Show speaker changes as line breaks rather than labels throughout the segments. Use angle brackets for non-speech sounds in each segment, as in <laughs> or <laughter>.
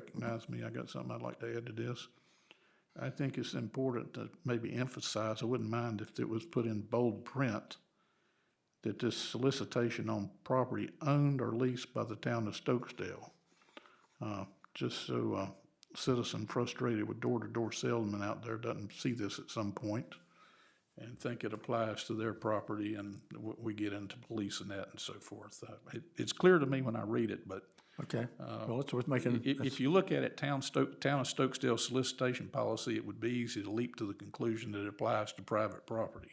recognize me, I got something I'd like to add to this. I think it's important to maybe emphasize, I wouldn't mind if it was put in bold print, that this solicitation on property owned or leased by the town of Stokesdale. Uh, Just so a citizen frustrated with door-to-door salesman out there doesn't see this at some point and think it applies to their property and we, we get into policing that and so forth. Uh, It, it's clear to me when I read it, but
Okay, well, it's worth making,
if, if you look at Uh, it, town Stoke, town of Stokesdale solicitation policy, it would be easy to leap to the conclusion that it applies to private property.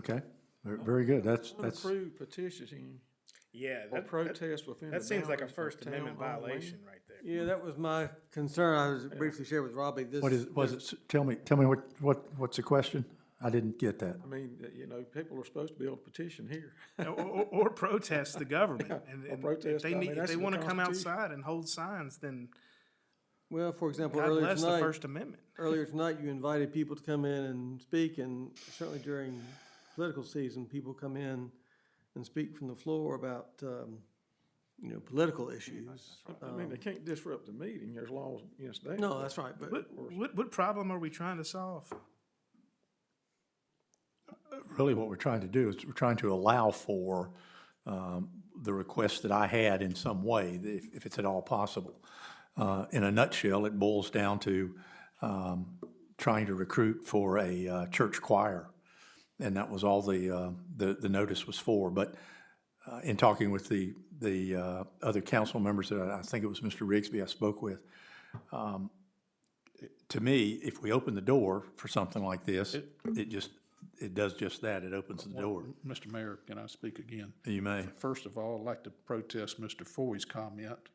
okay, ver- very good, that's, that's,
Approve petitioning
Yeah,
or
that, that,
protest within the
that seems like a
boundaries of
First
town
Amendment
or land.
violation right there.
Yeah, that was my concern. I was briefly shared with Robbie. This
what is, was it, s- tell me, tell me what, what, what's the question? I didn't get that.
I mean, uh, you know, people are supposed to be able to petition here.
<laughs> Or, or, or protest the
<laughs>
government, and, and if
protest, I
they
mean,
need, if
that's
they
in the
wanna come
Constitution.
outside and hold signs, then
Well, for example,
God
earlier
bless the
tonight,
First Amendment.
earlier tonight, you invited people to come in and speak, and certainly during political season, people come in and speak from the floor about, um, you know, political issues.
I mean, they can't disrupt the meeting, there's laws against that.
No, that's right, but
What, what, what problem are we trying to solve?
Really, what we're trying to do is we're trying to allow for um, the request that I had in some way, if, if it's at all possible. Uh, In a nutshell, it boils down to um, trying to recruit for a uh, church choir. And that was all the, uh, the, the notice was for. But uh, in talking with the, the uh, other council members, that I I think it was Mr. Rigsby I spoke with, um, to me, if we open the door for something like this, it just, it does just that. It opens the door.
Mr. Mayor, can I speak again?
You may.
First of all, I'd like to protest Mr. Foy's comment.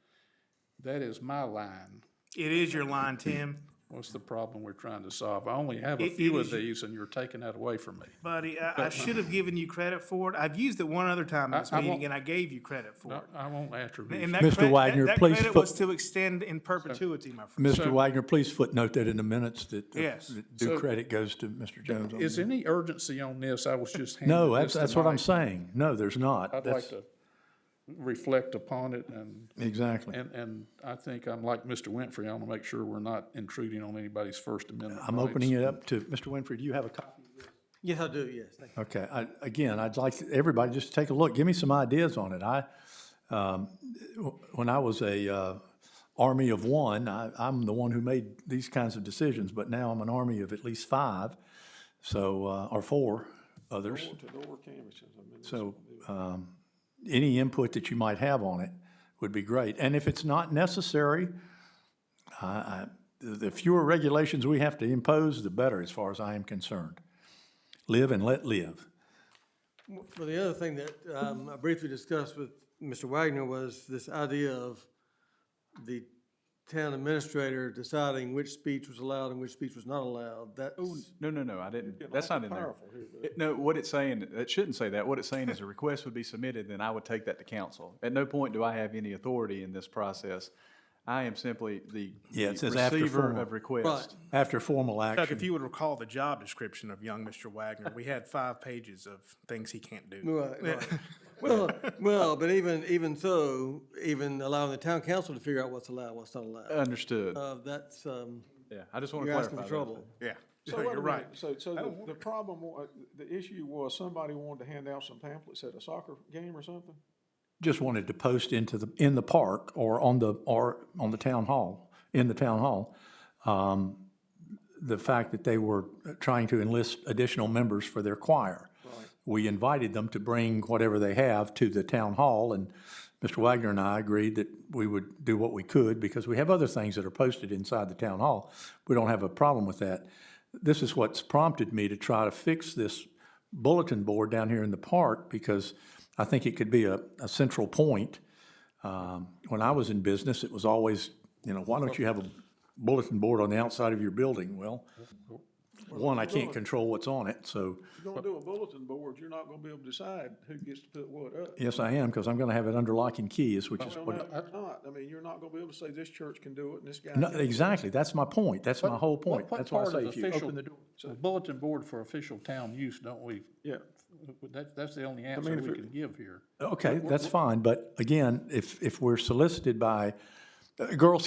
That is my line.
It is your line, Tim,
What's the problem we're trying to solve? I only have a
It- it
few of
is y-
these and you're taking that away from me.
buddy, I, I should have given you credit for it, I've used it one other time in this
I- I
meeting,
won't-
and I gave you credit for
I,
it.
I won't attribute.
And that
Mr.
credit- that-
Wagner, please
That credit
fo-
was to extend in perpetuity, my friend.
Mr. Wagner, please footnote that in the minutes that the-
Yes.
that due credit goes to Mr. Jones. on
Is
that.
any urgency on this? I was just handed
No,
this
that's, that's what I'm
tonight.
saying. No, there's not.
I'd like
That's-
to reflect upon it and
Exactly.
And, and I think I'm like Mr. Winfrey, I want to make sure we're not intruding on anybody's First Amendment
I'm
rights.
opening it up to, Mr. Winfrey, do you have a copy?
yes, I do, yes, thank you.
Okay, I, again, I'd like everybody just to take a look, give me some ideas on it. I, um, when I was a, uh, army of one, I, I'm the one who made these kinds of decisions, but now I'm an army of at least five, so, uh, or four others.
Door canvases, I mean,
So, um, any input that you might have on it would be great. And if it's not necessary, I, I, the the fewer regulations we have to impose, the better, as far as I am concerned. Live and let live.
Well, the other thing that um, I briefly discussed with Mr. Wagner was this idea of the town administrator deciding which speech was allowed and which speech was not allowed. That's,
Oh,
No, no, no, I didn't. That's not in there.
powerful here,
It- No, what it's saying, it shouldn't say that. What it's saying is a request would be submitted, then I would take that to council. At no point do I have any authority in this process. I am simply the
Yeah, it
the
says after
receiver
formal.
of
right,
request.
After formal
Chuck, if
action,
you would recall the job description of young Mr. Wagner, we had five pages of things he can't do.
right, right. Well, well, but even, even so, even allowing the town council to figure out what's allowed, what's not allowed,
Understood.
uh, that's, um,
Yeah, I just want to
you're
clarify
asking for
that.
trouble.
Yeah,
So
so
wait a
<laughs> you're
minute.
right.
So, so the, the problem, wa- uh, the issue was somebody wanted to hand out some pamphlets at a soccer game or something?
just wanted to post into the, in the park or on the, or on the town hall, in the town hall, um, the fact that they were trying to enlist additional members for their choir. We invited them to bring whatever they have to the town hall, and Mr. Wagner and I agreed that we would do what we could, because we have other things that are posted inside the town hall. We don't have a problem with that. This is what's prompted me to try to fix this bulletin board down here in the park, because I think it could be a, a central point. Um, When I was in business, it was always, you know, why don't you have a bulletin board on the outside of your building? Well, one, I can't control what's on it, so,
You're gonna do a bulletin board, you're not gonna be able to decide who gets to put what up.
yes, I am, because I'm going to have it under lock and key, is which is
No,
what.
no, you're not. I mean, you're not gonna be able to say this church can do it and this guy.
No,
can't.
exactly, that's my point, that's my whole
What-
point.
what
That's why I
part of
say if you
official-
open the door.
a Bulletin board for official town use, don't we?
Yeah,
That, that's the only answer we can give here.
Okay, that's fine, but again, if, if we're solicited by, uh, Girl